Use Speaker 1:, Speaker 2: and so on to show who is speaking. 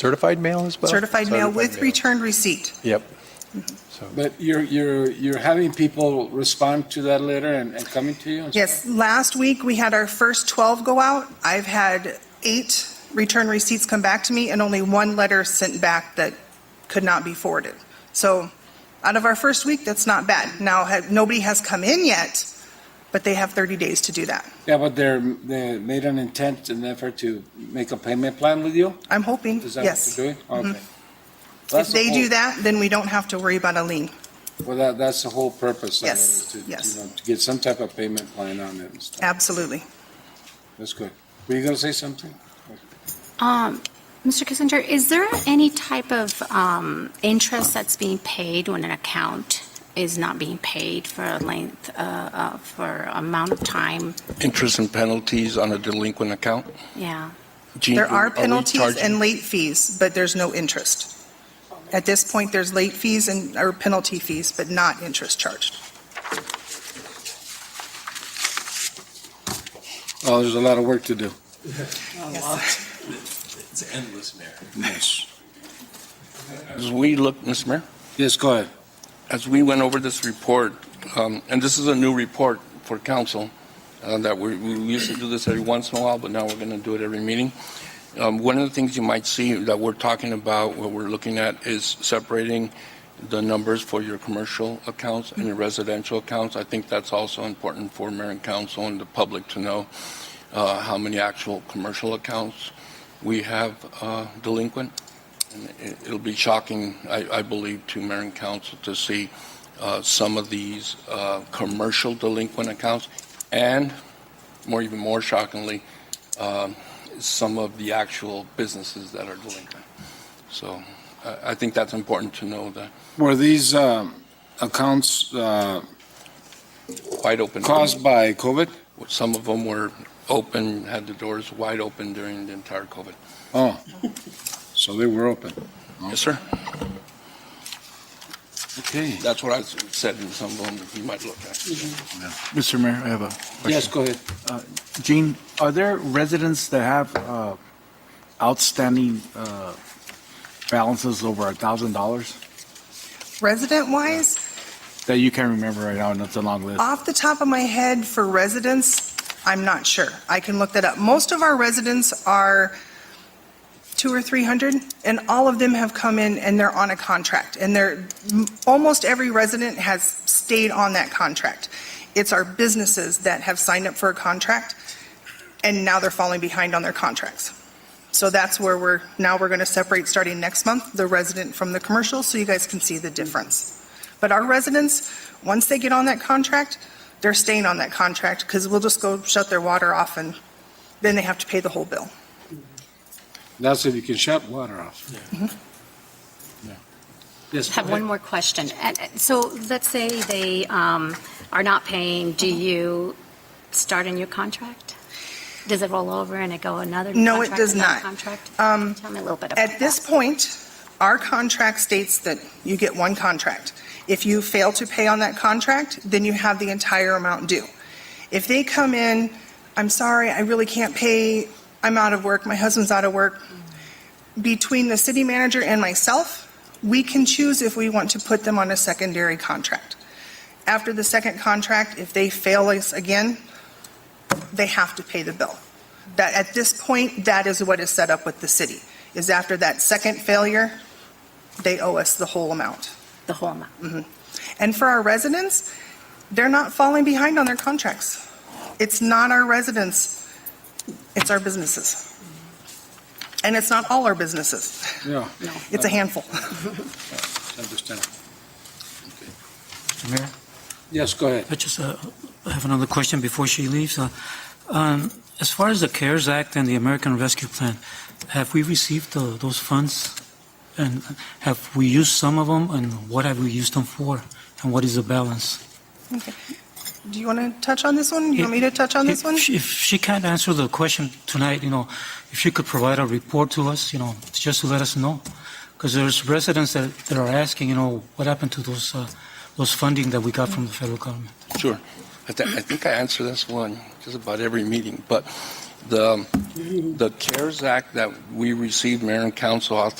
Speaker 1: Certified mail as well?
Speaker 2: Certified mail with Mm-hmm.
Speaker 1: Certified
Speaker 2: return receipt.
Speaker 1: Yep. So,
Speaker 3: But you're, you're, you're having people respond to that letter and, and coming to you?
Speaker 2: Yes, last week, we had our first 12 go out. I've had eight return receipts come back to me and only one letter sent back that could not be forwarded. So out of our first week, that's not bad. Now, ha- nobody has come in yet, but they have 30 days to do that.
Speaker 3: Yeah, but they're, they made an intent and effort to make a payment plan with you?
Speaker 2: I'm hoping,
Speaker 3: Is that what
Speaker 2: yes.
Speaker 3: you're doing? Okay.
Speaker 2: If
Speaker 3: That's the
Speaker 2: they do
Speaker 3: whole-
Speaker 2: that, then we don't have to worry about a lien.
Speaker 3: Well, that, that's the whole purpose of it,
Speaker 2: Yes,
Speaker 3: is to,
Speaker 2: yes.
Speaker 3: you know, to get some type of payment plan on it and stuff.
Speaker 2: Absolutely.
Speaker 3: That's good. Were you gonna say something?
Speaker 4: Um, Mr. Kissinger, is there any type of um, interest that's being paid when an account is not being paid for a length, uh, uh, for amount of time?
Speaker 5: interest and penalties on a delinquent account?
Speaker 4: Yeah.
Speaker 5: Gene,
Speaker 2: There are
Speaker 5: we
Speaker 2: penalties
Speaker 5: charging-
Speaker 2: and late fees, but there's no interest. At this point, there's late fees and, or penalty fees, but not interest charged.
Speaker 3: Oh, there's a lot of work to do.
Speaker 6: It's endless, Mayor.
Speaker 3: Yes.
Speaker 5: As we look, Mr. Mayor,
Speaker 3: Yes, go ahead.
Speaker 5: as we went over this report, um, and this is a new report for council, uh, that we, we used to do this every once in a while, but now we're going to do it every meeting. Um, One of the things you might see that we're talking about, what we're looking at, is separating the numbers for your commercial accounts and your residential accounts. I think that's also important for mayor and council and the public to know uh, how many actual commercial accounts we have uh, delinquent. And it- It'll be shocking, I I believe, to mayor and council to see uh, some of these uh, commercial delinquent accounts, and more, even more shockingly, um, some of the actual businesses that are delinquent. So I I think that's important to know, that
Speaker 3: Were these, um, accounts, uh,
Speaker 5: wide open.
Speaker 3: caused by COVID?
Speaker 5: Some of them were open, had the doors wide open during the entire COVID.
Speaker 3: Oh, so they were open.
Speaker 5: Yes, sir.
Speaker 3: Okay.
Speaker 5: That's what I said, and some of them you might look at.
Speaker 7: Mr. Mayor, I have a
Speaker 3: Yes,
Speaker 7: question.
Speaker 3: go ahead.
Speaker 7: Gene, are there residents that have uh, outstanding uh, balances over a thousand dollars
Speaker 2: Resident-wise,
Speaker 7: that you can remember right now, and it's a long list?
Speaker 2: off the top of my head, for residents, I'm not sure. I can look that up. Most of our residents are two or 300, and all of them have come in and they're on a contract. And they're, m- almost every resident has stayed on that contract. It's our businesses that have signed up for a contract, and now they're falling behind on their contracts. So that's where we're, now we're going to separate, starting next month, the resident from the commercial, so you guys can see the difference. But our residents, once they get on that contract, they're staying on that contract, because we'll just go shut their water off, and then they have to pay the whole bill.
Speaker 3: That's if you can shut water off. Yeah. Yes,
Speaker 4: I
Speaker 3: go
Speaker 4: have one
Speaker 3: ahead.
Speaker 4: more question. And- and So let's say they um, are not paying, do
Speaker 2: Mm-hmm.
Speaker 4: you start a new contract? Does it roll over and it go another?
Speaker 2: No, it
Speaker 4: contract,
Speaker 2: does
Speaker 4: another
Speaker 2: not.
Speaker 4: Contract?
Speaker 2: Um,
Speaker 4: Tell me a little bit about that.
Speaker 2: At this point, our contract states that you get one contract. If you fail to pay on that contract, then you have the entire amount due. If they come in, I'm sorry, I really can't pay, I'm out of work, my husband's out of work, between the city manager and myself, we can choose if we want to put them on a secondary contract. After the second contract, if they fail us again, they have to pay the bill. That, at this point, that is what is set up with the city is after that second failure, they owe us the whole amount.
Speaker 4: The whole amount.
Speaker 2: Mm-hmm. And for our residents, they're not falling behind on their contracts. It's not our residents, it's our businesses. And it's not all our businesses,
Speaker 3: Yeah,
Speaker 2: it's a handful.
Speaker 3: understand. Okay.
Speaker 8: Mr. Mayor?
Speaker 3: Yes, go ahead.
Speaker 8: I just uh, have another question before she leaves. Uh, um, As far as the CARES Act and the American Rescue Plan, have we received tho- those funds? And have we used some of them, and what have we used them for? And what is the balance?
Speaker 2: Do you want to touch on this one? You want me to touch on this
Speaker 8: If-
Speaker 2: one?
Speaker 8: If she can't answer the question tonight, you know, if she could provide a report to us, you know, just to let us know. Because there's residents that that are asking, you know, what happened to those, uh, those funding that we got from the federal government?
Speaker 5: Sure. I, th- I think I answer this one just about every meeting, but the, the CARES Act that we received, Mayor and Council authorized